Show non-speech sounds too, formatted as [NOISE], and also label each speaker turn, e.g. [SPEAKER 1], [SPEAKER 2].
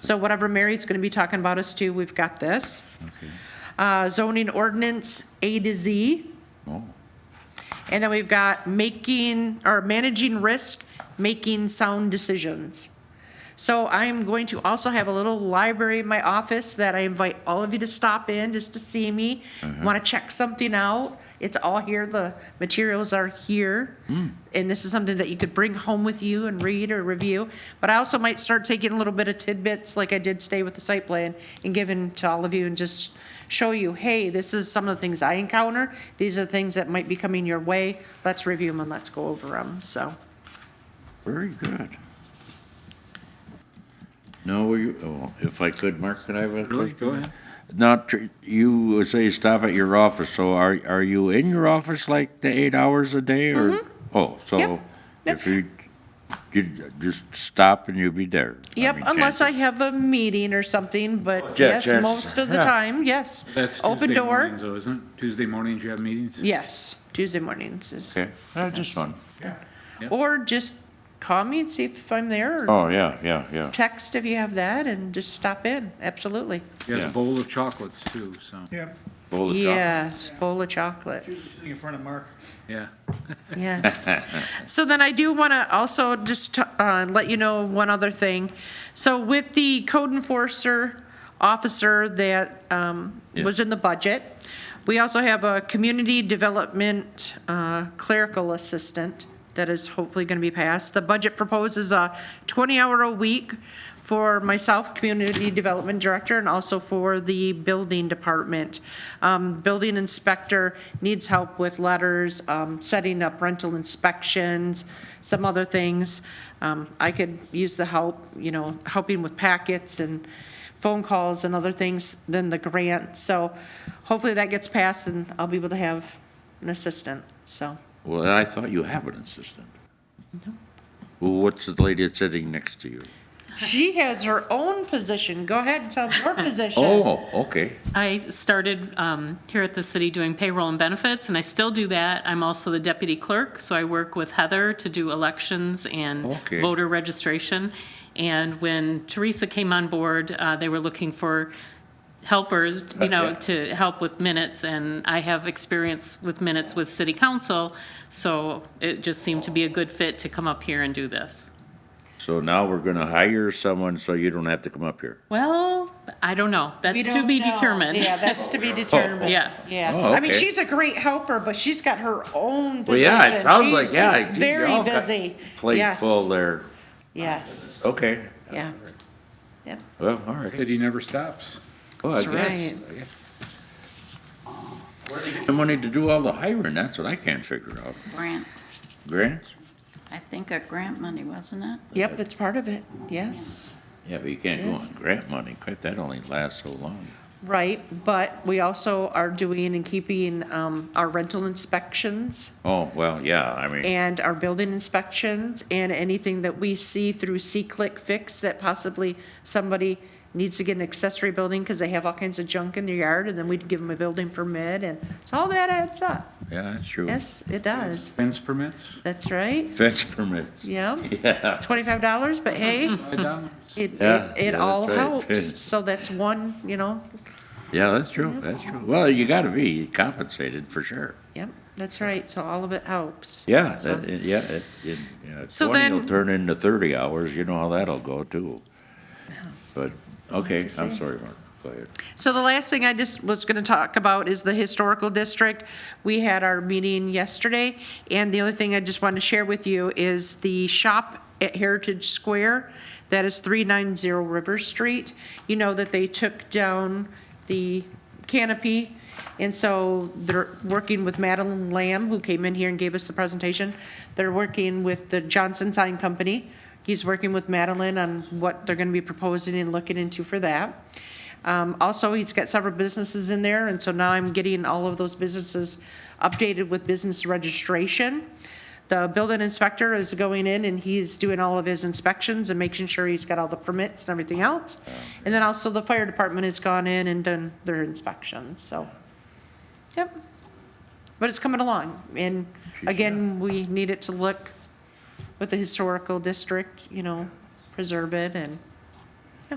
[SPEAKER 1] So whatever Mary's going to be talking about us to, we've got this.
[SPEAKER 2] Okay.
[SPEAKER 1] Uh, Zoning ordinance A to Z.
[SPEAKER 2] Oh,
[SPEAKER 1] And then we've got making, or managing risk, making sound decisions. So I'm going to also have a little library in my office that I invite all of you to stop in just to see me. Want to check something out? It's all here, the materials are here. And this is something that you could bring home with you and read or review. But I also might start taking a little bit of tidbits like I did today with the site plan and giving to all of you and just show you, hey, this is some of the things I encounter. These are the things that might be coming your way. Let's review them and let's go over them, so.
[SPEAKER 2] very good. Now, will you, oh, if I could, Mark, could I have a?
[SPEAKER 3] Really? Go ahead.
[SPEAKER 2] Not, tr- you say stop at your office, so are, are you in your office like the eight hours a day or? Oh, so
[SPEAKER 1] Mm-hmm. Yep. Yep.
[SPEAKER 2] if you, you just stop and you'll be there.
[SPEAKER 1] Yep,
[SPEAKER 2] mean,
[SPEAKER 1] unless I
[SPEAKER 2] chances-
[SPEAKER 1] have a meeting or something, but
[SPEAKER 2] Yeah,
[SPEAKER 1] yes,
[SPEAKER 2] chances
[SPEAKER 1] most
[SPEAKER 2] are,
[SPEAKER 1] of the
[SPEAKER 2] yeah.
[SPEAKER 1] time, yes.
[SPEAKER 3] That's
[SPEAKER 1] Open
[SPEAKER 3] Tuesday
[SPEAKER 1] door,
[SPEAKER 3] mornings though, isn't it? Tuesday mornings you have meetings?
[SPEAKER 1] yes, Tuesday mornings is,
[SPEAKER 2] Okay, Uh, just one.
[SPEAKER 1] or just call me and see if I'm there, or
[SPEAKER 2] Oh, yeah, yeah, yeah.
[SPEAKER 1] text if you have that, and just stop in, absolutely.
[SPEAKER 3] He has
[SPEAKER 2] Yeah.
[SPEAKER 3] a bowl of chocolates too, so,
[SPEAKER 4] Yep,
[SPEAKER 2] Bowl of chocolate.
[SPEAKER 1] Yes, bowl of chocolates.
[SPEAKER 4] sitting in front of Mark.
[SPEAKER 3] yeah.
[SPEAKER 1] Yes. So then I do want to also just uh, let you know one other thing. So with the code enforcer officer that um, was in the budget, we also have a community development uh, clerical assistant that is hopefully going to be passed. The budget proposes a 20-hour a week for myself, Community Development Director, and also for the Building Department. Um, Building Inspector needs help with letters, um, setting up rental inspections, some other things. Um, I could use the help, you know, helping with packets and phone calls and other things than the grant. So hopefully that gets passed and I'll be able to have an assistant, so.
[SPEAKER 2] Well, I thought you have an assistant. Well, what's the lady that's sitting next to you?
[SPEAKER 1] She has her own position. Go ahead and tell her position.
[SPEAKER 2] Oh, okay.
[SPEAKER 5] I started um, here at the city doing payroll and benefits, and I still do that. I'm also the deputy clerk, so I work with Heather to do elections and
[SPEAKER 2] Okay.
[SPEAKER 5] voter registration. And when Teresa came on board, uh, they were looking for helpers, you know,
[SPEAKER 2] yeah.
[SPEAKER 5] to help with minutes, and I have experience with minutes with city council, so it just seemed to be a good fit to come up here and do this.
[SPEAKER 2] So now we're gonna hire someone so you don't have to come up here.
[SPEAKER 5] Well, I don't know. That's
[SPEAKER 1] We
[SPEAKER 5] to
[SPEAKER 1] don't
[SPEAKER 5] be
[SPEAKER 1] know.
[SPEAKER 5] determined.
[SPEAKER 1] Yeah, that's
[SPEAKER 2] [LAUGHS]
[SPEAKER 1] to be determined.
[SPEAKER 5] Yeah.
[SPEAKER 1] Yeah.
[SPEAKER 2] Oh,
[SPEAKER 1] I mean,
[SPEAKER 2] okay.
[SPEAKER 1] she's a great helper, but she's got her own position.
[SPEAKER 2] Well, yeah, it sounds
[SPEAKER 1] She's
[SPEAKER 2] like, yeah. gee,
[SPEAKER 1] Very
[SPEAKER 2] y'all got
[SPEAKER 1] busy.
[SPEAKER 2] Plate
[SPEAKER 1] Yes,
[SPEAKER 2] full there.
[SPEAKER 1] Yes,
[SPEAKER 2] Okay.
[SPEAKER 1] yeah. Yep,
[SPEAKER 2] Well, all right.
[SPEAKER 3] City never stops.
[SPEAKER 2] Well, I
[SPEAKER 1] that's
[SPEAKER 2] guess.
[SPEAKER 1] right.
[SPEAKER 2] The money to do all the hiring, that's what I can't figure out.
[SPEAKER 6] Grant,
[SPEAKER 2] Grants?
[SPEAKER 6] I think a grant money, wasn't it?
[SPEAKER 1] Yep, that's part of it, yes.
[SPEAKER 2] Yeah, but you can't go
[SPEAKER 1] Yes.
[SPEAKER 2] on grant money. Crap, that only lasts so long.
[SPEAKER 1] Right, but we also are doing and keeping um, our rental inspections
[SPEAKER 2] Oh, well, yeah, I mean,
[SPEAKER 1] and our building inspections and anything that we see through C-Click Fix that possibly somebody needs to get an accessory building because they have all kinds of junk in their yard and then we'd give them a building permit and so all that adds up.
[SPEAKER 2] yeah, that's true.
[SPEAKER 1] Yes, it does.
[SPEAKER 3] Fence permits,
[SPEAKER 1] That's right.
[SPEAKER 2] Fence permits.
[SPEAKER 1] Yep.
[SPEAKER 2] [LAUGHS] Yeah.
[SPEAKER 1] Twenty-five dollars, but hey,
[SPEAKER 3] five dollars.
[SPEAKER 1] it, it,
[SPEAKER 2] Yeah, yeah,
[SPEAKER 1] it all
[SPEAKER 2] that's right.
[SPEAKER 1] helps. So that's one, you know,
[SPEAKER 2] Yeah, that's true, that's true. Well, you gotta be compensated for sure.
[SPEAKER 1] yep, that's right. So all of it helps.
[SPEAKER 2] Yeah,
[SPEAKER 1] So-
[SPEAKER 2] that, it- yeah, it, it, yeah,
[SPEAKER 1] So
[SPEAKER 2] twenty will
[SPEAKER 1] then-
[SPEAKER 2] turn into thirty hours, you know how that'll go too. But, okay, I'm
[SPEAKER 1] see.
[SPEAKER 2] sorry, Mark, go ahead.
[SPEAKER 1] So the last thing I just was gonna talk about is the historical district. We had our meeting yesterday, and the only thing I just wanted to share with you is the shop at Heritage Square. That is three nine zero River Street. You know that they took down the canopy, and so they're working with Madeline Lamb, who came in here and gave us the presentation. They're working with the Johnson Sign Company. He's working with Madeline on what they're gonna be proposing and looking into for that. Um, also, he's got several businesses in there, and so now I'm getting all of those businesses updated with business registration. The building inspector is going in and he's doing all of his inspections and making sure he's got all the permits and everything else. And then also the fire department has gone in and done their inspections, so, yep. But it's coming along, and again, we need it to look with the historical district, you know, preserve it and